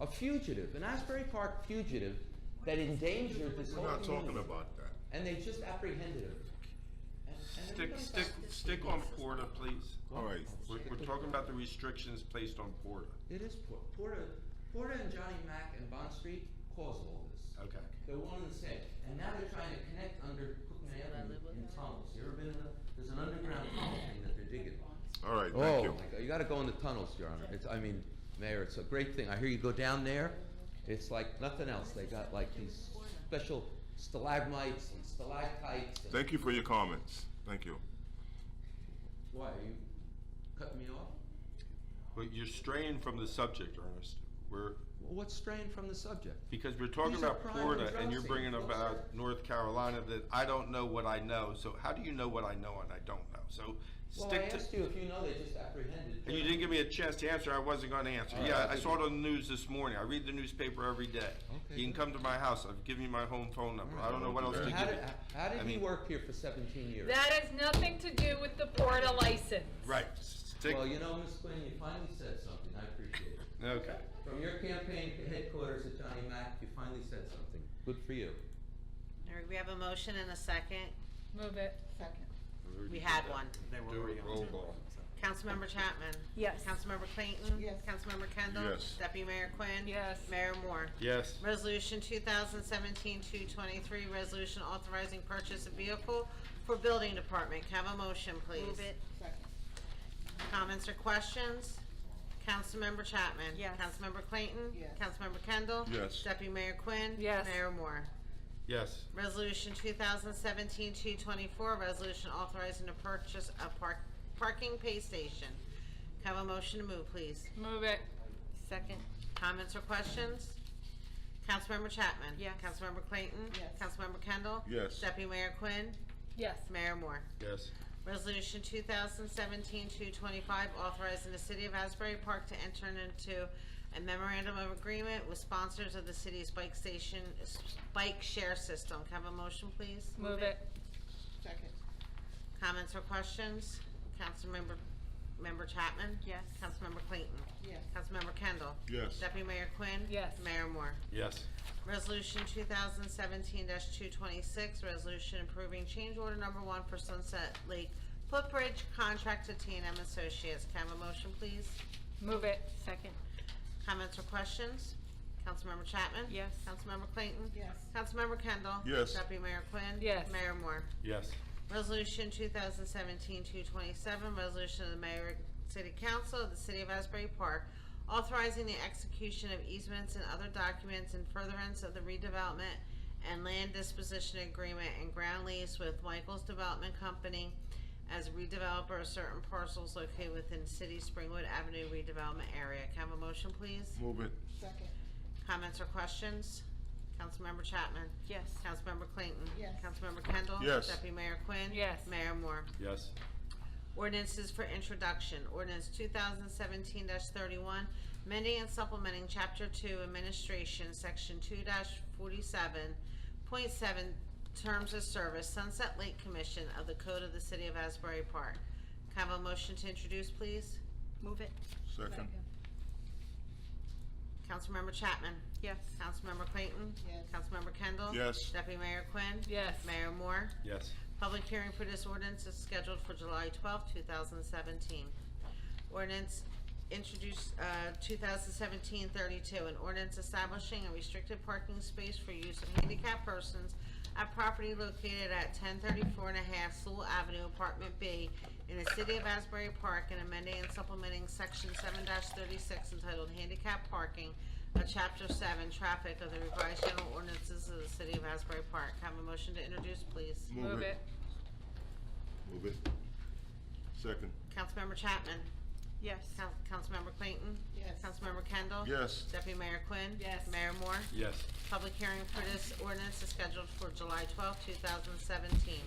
a fugitive, an Asbury Park fugitive that endangered this We're whole not talking community. about that. And they just apprehended him. And- and Stick, everybody's stick, like, stick on Porter, please. All right, We're, we're talking about the restrictions placed on Porter. It is Por- Porter, Porter and Johnny Mack and Bond Street caused all this. Okay. They're one and the same, and now they're trying to connect under Cookman Avenue in tunnels. You ever been in a, there's an underground tunnel thing that they're digging. all right, thank you. Oh, my God, you gotta go in the tunnels, Your Honor. It's, I mean, Mayor, it's a great thing. I hear you go down there, it's like nothing else. They got like these special stalagmites and stalactites and. Thank you for your comments. Thank you. Why, are you cutting me off? But you're straying from the subject, Ernest. We're, Well, What's straying from the subject? because we're talking These are about prime Florida drug and you're bringing scenes, those about North Carolina that I don't know what I know. So how do you know what I know and I don't know? So Well, I stick to. asked you if you know they just apprehended. And you didn't give me a chance to answer, I wasn't gonna answer. All Yeah, right. I saw it on the news this morning, I read the newspaper every day. Okay, You can good. come to my house, I've given you my home phone number, I don't know what else to give How you. did, how did I he mean- work here for seventeen years? That has nothing to do with the Porta license. Right, stick, Well, you know, Ms. Quinn, you finally said something, I appreciate it. okay. From your campaign headquarters at Johnny Mac, you finally said something, good for you. All right, we have a motion and a second. Move it. Second. We had one. Do it, roll call. Councilmember Chapman? Yes. Councilmember Clayton? Yes. Councilmember Kendall? Yes. Deputy Mayor Quinn? Yes. Mayor Moore? Yes, Resolution 2017-223, resolution authorizing purchase of vehicle for building department. Can I have a motion, please? Move it. Second. Comments or questions? Councilmember Chapman? Yes. Councilmember Clayton? Yes. Councilmember Kendall? Yes. Deputy Mayor Quinn? Yes. Mayor Moore? yes, Resolution 2017-224, resolution authorizing the purchase of park, parking pay station. Can I have a motion to move, please? Move it. Second. Comments or questions? Councilmember Chapman? Yes. Councilmember Clayton? Yes. Councilmember Kendall? Yes. Deputy Mayor Quinn? Yes. Mayor Moore? yes, Resolution 2017-225, authorizing the City of Asbury Park to enter into a memorandum of agreement with sponsors of the city's bike station, bike share system. Can I have a motion, please? Move it. Second. Comments or questions? Councilmember, Member Chapman? Yes. Councilmember Clayton? Yes. Councilmember Kendall? Yes. Deputy Mayor Quinn? Yes. Mayor Moore? yes, Resolution two thousand seventeen two twenty-six, resolution approving change order number one for Sunset Lake Footbridge contract to T and M Associates. Can I have a motion, please? Move it. Second. Comments or questions? Councilmember Chapman? Yes. Councilmember Clayton? Yes. Councilmember Kendall? Yes. Deputy Mayor Quinn? Yes. Mayor Moore? yes, Resolution 2017-227, resolution of the mayor and city council of the city of Asbury Park authorizing the execution of easements and other documents in furtherance of the redevelopment and land disposition agreement and ground lease with Michael's Development Company as redeveloper of certain parcels located within city Springwood Avenue redevelopment area. Can I have a motion, please? Move it, Second. Comments or questions? Councilmember Chapman? Yes. Councilmember Clayton? Yes. Councilmember Kendall? Yes. Deputy Mayor Quinn? Yes. Mayor Moore? yes, Ordinances for introduction, ordinance two thousand seventeen thirty-one, amending and supplementing chapter two administration, section two forty-seven point seven, terms of service, Sunset Lake Commission of the Code of the City of Asbury Park. Can I have a motion to introduce, please? Move it. second, Councilmember Chapman? Yes. Councilmember Clayton? Yes. Councilmember Kendall? Yes. Deputy Mayor Quinn? Yes. Mayor Moore? yes, Public hearing for this ordinance is scheduled for July twelfth, two thousand seventeen. Ordinance introduced, uh, 32 an ordinance establishing a restricted parking space for use of handicapped persons at property located at 1034 and a half Sewell Avenue, Apartment B, in the city of Asbury Park, and amending and supplementing section seven thirty-six entitled Handicap Parking of Chapter Seven, Traffic of the Revised General Ordinances of the city of Asbury Park. Have a motion to introduce, please. move it, move it, second, Councilmember Chapman. Yes. Coun- Councilmember Clayton. Yes. Councilmember Kendall. yes, Deputy Mayor Quinn. Yes. Mayor Moore. yes, Public hearing for this ordinance is scheduled for July twelfth, two thousand seventeen.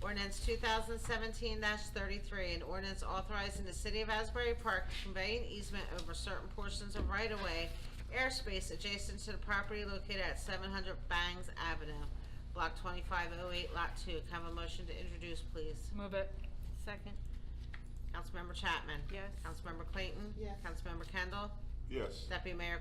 Ordinance two thousand seventeen thirty-three, an ordinance authorizing the city of Asbury Park to convey an easement over certain portions of right-of-way airspace adjacent to the property located at seven hundred Bangs Avenue, block twenty-five oh eight, lot two. Can I have a motion to introduce, please? Move it. Second. Councilmember Chapman. Yes. Councilmember Clayton. Yes. Councilmember Kendall. yes. Deputy Mayor